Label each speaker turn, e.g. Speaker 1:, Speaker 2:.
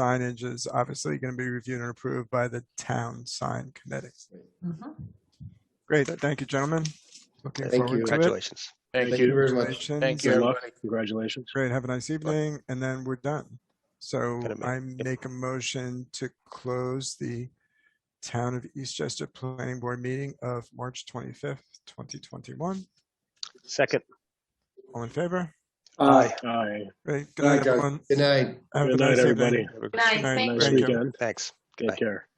Speaker 1: signage is obviously going to be reviewed and approved by the town sign committee.
Speaker 2: Mhm.
Speaker 1: Great, thank you, gentlemen. Looking
Speaker 3: Thank
Speaker 1: forward
Speaker 3: you.
Speaker 1: to it.
Speaker 4: Congratulations.
Speaker 3: Thank you very much.
Speaker 1: Congratulations.
Speaker 4: Thank you,
Speaker 3: Good luck.
Speaker 4: everybody.
Speaker 3: Congratulations.
Speaker 1: Great, have a nice evening, and then we're done. So
Speaker 4: Gonna make-
Speaker 1: I make a motion to close the Town of Eastchester Planning Board meeting of March 25th, 2021.
Speaker 4: Second.
Speaker 1: All in favor?
Speaker 5: Aye.
Speaker 3: Aye.
Speaker 1: Great, good
Speaker 5: Aye,
Speaker 1: night,
Speaker 5: guys.
Speaker 1: everyone.
Speaker 5: Good night.
Speaker 1: Have a
Speaker 3: Good
Speaker 1: nice
Speaker 3: night,
Speaker 1: evening.
Speaker 3: everybody.
Speaker 2: Nice,
Speaker 1: Nice
Speaker 2: thank
Speaker 3: Nice
Speaker 1: Thank you.
Speaker 3: weekend.
Speaker 4: Thanks. Bye.
Speaker 3: Take care.